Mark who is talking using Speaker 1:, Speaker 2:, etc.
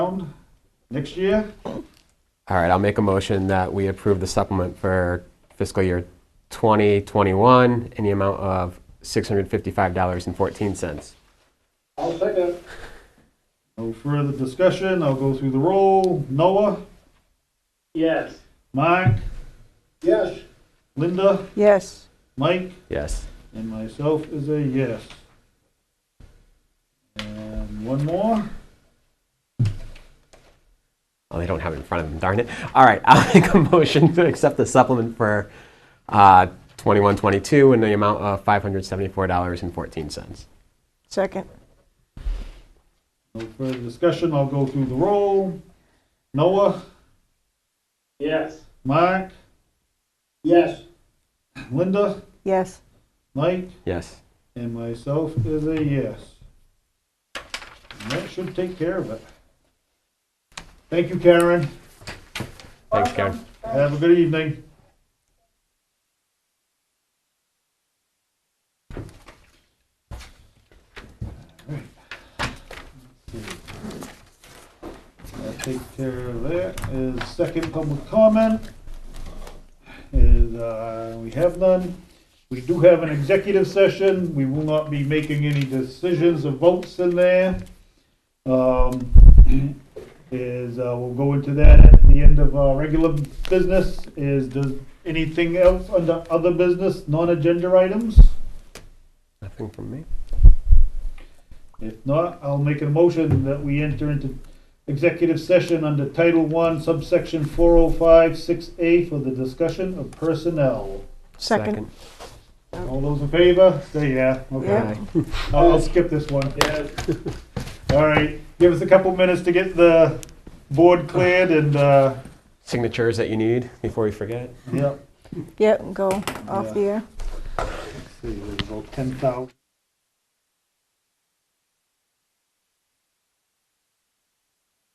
Speaker 1: round next year.
Speaker 2: All right, I'll make a motion that we approve the supplement for fiscal year 2021 in the amount of $655.14.
Speaker 3: I'll second.
Speaker 1: No further discussion. I'll go through the roll. Noah,
Speaker 3: Yes.
Speaker 1: Mike,
Speaker 3: Yes.
Speaker 1: Linda,
Speaker 4: yes,
Speaker 1: Mike,
Speaker 2: Yes.
Speaker 1: and myself is a yes. And one more.
Speaker 2: Oh, they don't have it in front of them, darn it. All right, I'll make a motion to accept the supplement for uh, 21-22 in the amount of $574.14.
Speaker 4: second,
Speaker 1: No further discussion. I'll go through the roll. Noah,
Speaker 3: Yes.
Speaker 1: Mike,
Speaker 3: Yes.
Speaker 1: Linda,
Speaker 4: yes,
Speaker 1: Mike,
Speaker 2: Yes.
Speaker 1: and myself is a yes. And that should take care of it. Thank you, Karen.
Speaker 2: Thanks, Karen.
Speaker 1: Have a good evening. Alright. Let's see. That takes care of that. Is second public comment. Is, uh, we have none. We do have an executive session. We will not be making any decisions or votes in there. Um, is, uh, we'll go into that at the end of, uh, regular business, is, does anything else under other business, non-agenda items?
Speaker 2: Nothing from me.
Speaker 1: If not, I'll make a motion that we enter into executive session under Title One, subsection four oh five, six A for the discussion of personnel.
Speaker 4: second,
Speaker 1: All those in favor, say yeah, okay.
Speaker 4: Yeah.
Speaker 2: Aye.
Speaker 1: I'll I'll skip this one.
Speaker 3: Yes.
Speaker 1: All right, give us a couple minutes to get the board cleared and, uh,
Speaker 2: Signatures that you need before we forget?
Speaker 1: yep.
Speaker 4: yeah, go off the air.
Speaker 1: See, there's about ten thousand.